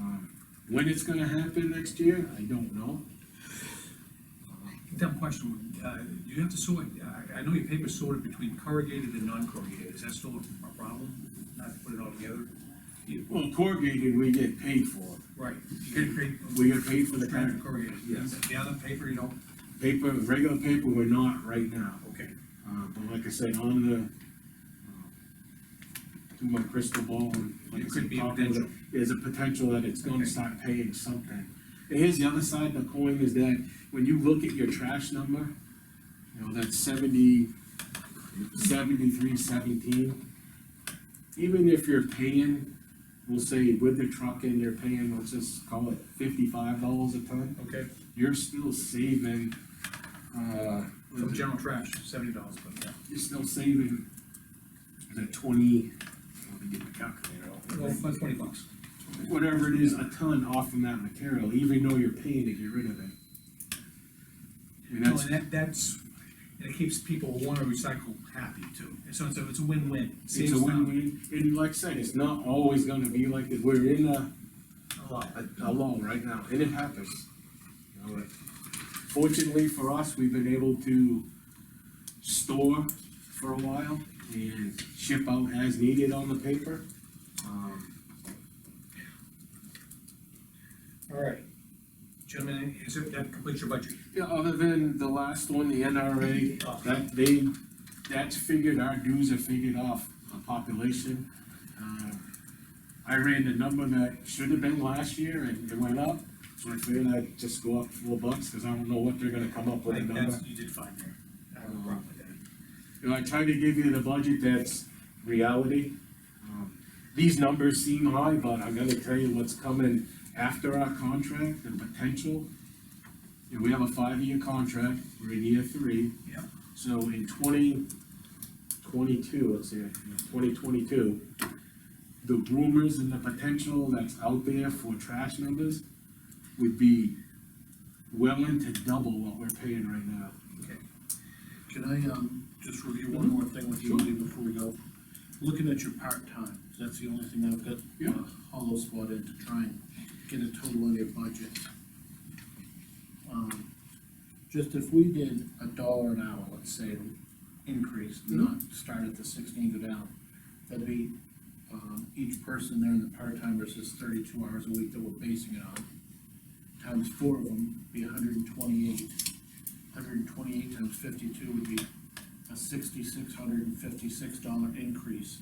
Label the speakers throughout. Speaker 1: Um, When it's gonna happen next year, I don't know.
Speaker 2: Dumb question, uh, you have to sort, uh, I, I know your paper's sorted between corrugated and non-corrugated, is that still a a problem? Not to put it all together?
Speaker 1: Well, corrugated, we get paid for.
Speaker 2: Right, you gotta create.
Speaker 1: We get paid for the kind
Speaker 2: Branded
Speaker 1: of
Speaker 2: corrugated,
Speaker 1: Yes.
Speaker 2: the other paper, you don't,
Speaker 1: paper, regular paper, we're not right now.
Speaker 2: okay,
Speaker 1: Uh, but like I said, on the, uh, through my crystal ball, and like I
Speaker 2: It could
Speaker 1: said,
Speaker 2: be a
Speaker 1: talking with it,
Speaker 2: potential.
Speaker 1: there's a potential that it's gonna
Speaker 2: Okay.
Speaker 1: start paying something. And here's the other side of the coin, is that when you look at your trash number, you know, that's seventy, seventy-three seventeen. Even if you're paying, we'll say with the truck in, you're paying, let's just call it fifty-five dollars a ton,
Speaker 2: okay,
Speaker 1: you're still saving, uh. what is
Speaker 2: from
Speaker 1: it?
Speaker 2: general trash, seventy dollars, but, yeah.
Speaker 1: you're still saving the twenty, let me get my calculator
Speaker 2: Well,
Speaker 1: out.
Speaker 2: about twenty bucks.
Speaker 1: Whatever it is, a ton off from that material, even though you're paying to get rid of it. I mean,
Speaker 2: No,
Speaker 1: that's,
Speaker 2: and that, that's, and it keeps people who wanna recycle happy too, And so it's a, it's a win-win.
Speaker 1: it's a win-win, and like I said, it's not always gonna be like that, we're in a,
Speaker 2: A lot.
Speaker 1: a, a lull right now, and it happens. You know, but Fortunately for us, we've been able to store for a while and ship out as needed on the paper. Um,
Speaker 2: All right. Gentlemen, is it, that completes your budget?
Speaker 1: Yeah, other than the last one, the NRA,
Speaker 2: Oh.
Speaker 1: that they, that's figured, our dues are figured off a population. Uh, I ran the number that should have been last year and it went up, so I figured I'd just go up four bucks, cause I don't know what they're gonna come up with a
Speaker 2: Like,
Speaker 1: number.
Speaker 2: that's, you did fine there. I have no problem with that.
Speaker 1: You know, I try to give you the budget that's reality. Um, These numbers seem high, but I'm gonna tell you what's coming after our contract, the potential. You know, we have a five-year contract, we're in year three.
Speaker 2: Yep.
Speaker 1: So in twenty twenty-two, let's see, twenty twenty-two, the rumors and the potential that's out there for trash numbers would be willing to double what we're paying right now.
Speaker 3: Can I, um, just review one more thing with you, Lee, before we go? Looking at your part-time, 'cause that's the only thing I've got,
Speaker 1: Yeah.
Speaker 3: uh, hollow spotted to try and get a total on your budget. Um, Just if we did a dollar an hour, let's say, increase,
Speaker 1: Mm-hmm.
Speaker 3: not start at the sixteen, go down, that'd be, um, each person there in the part-time versus thirty-two hours a week that we're basing it on, times four of them, be hundred and twenty-eight hundred and twenty-eight times fifty-two would be a sixty-six hundred and fifty-six dollar increase.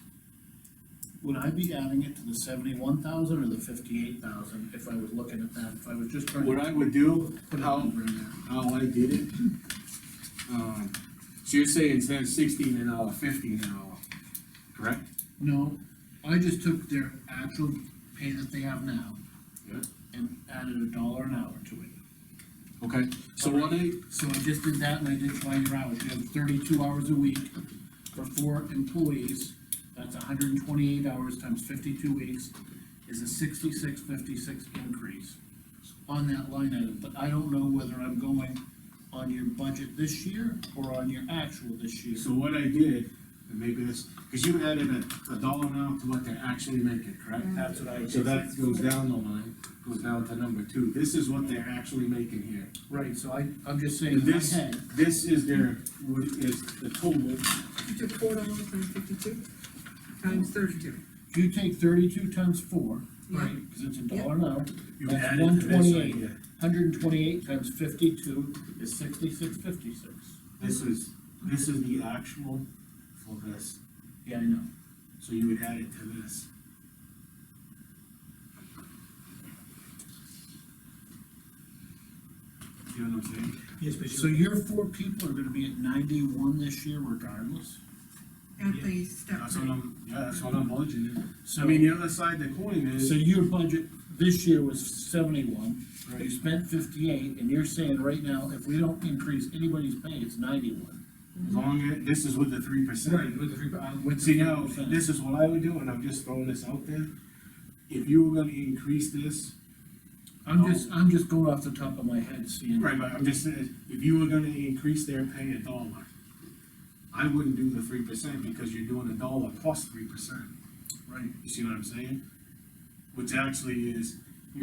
Speaker 3: Would I be adding it to the seventy-one thousand or the fifty-eight thousand if I was looking at that, if I was just trying
Speaker 1: What
Speaker 3: to
Speaker 1: I would do,
Speaker 3: put a
Speaker 1: how-
Speaker 3: number in there?
Speaker 1: how I did it. Um, so you're saying instead of sixteen an hour, fifteen an hour, correct?
Speaker 3: No, I just took their actual pay that they have now.
Speaker 1: Yeah.
Speaker 3: And added a dollar an hour to it.
Speaker 1: Okay, so what I,
Speaker 3: So I just did that and I did twenty hours, you have thirty-two hours a week for four employees. That's hundred and twenty-eight hours times fifty-two weeks is a sixty-six fifty-six increase on that line item, but I don't know whether I'm going on your budget this year or on your actual this year.
Speaker 1: so what I did, and maybe this, cause you added a, a dollar an hour to what they're actually making, correct?
Speaker 3: That's what I
Speaker 1: So
Speaker 3: did,
Speaker 1: that goes down the line, goes down to number two, this is what they're actually making here.
Speaker 3: right, so I, I'm just saying
Speaker 1: And
Speaker 3: in my
Speaker 1: this,
Speaker 3: head,
Speaker 1: this is their, what is the total,
Speaker 4: You took four dollars times fifty-two, times thirty-two.
Speaker 3: if you take thirty-two times four, right, cause it's a dollar an hour,
Speaker 1: you
Speaker 3: That's
Speaker 1: added to this right
Speaker 3: 128.
Speaker 1: here.
Speaker 3: hundred and twenty-eight times fifty-two is sixty-six fifty-six.
Speaker 1: This is, this is the actual for this.
Speaker 3: Yeah, I know.
Speaker 1: So you would add it to this. See what I'm saying?
Speaker 2: Yes, but
Speaker 3: So your four people are gonna be at ninety-one this year regardless,
Speaker 4: At the step.
Speaker 1: That's what I'm, yeah, that's what I'm budgeting.
Speaker 3: so.
Speaker 1: I mean, the other side of the coin is,
Speaker 3: So your budget this year was seventy-one, you
Speaker 1: right,
Speaker 3: spent fifty-eight, and you're saying right now, if we don't increase anybody's pay, it's ninety-one.
Speaker 1: as long as, this is with the three percent.
Speaker 2: Right, with the three, uh,
Speaker 3: With
Speaker 1: See,
Speaker 3: the
Speaker 1: now,
Speaker 3: 3%.
Speaker 1: this is what I would do, and I'm just throwing this out there. If you were gonna increase this,
Speaker 3: I'm just, I'm just going off the top of my head, seeing.
Speaker 1: right, but I'm just saying, if you were gonna increase their pay a dollar, I wouldn't do the three percent because you're doing a dollar plus three percent.
Speaker 3: Right.
Speaker 1: You see what I'm saying? Which actually is,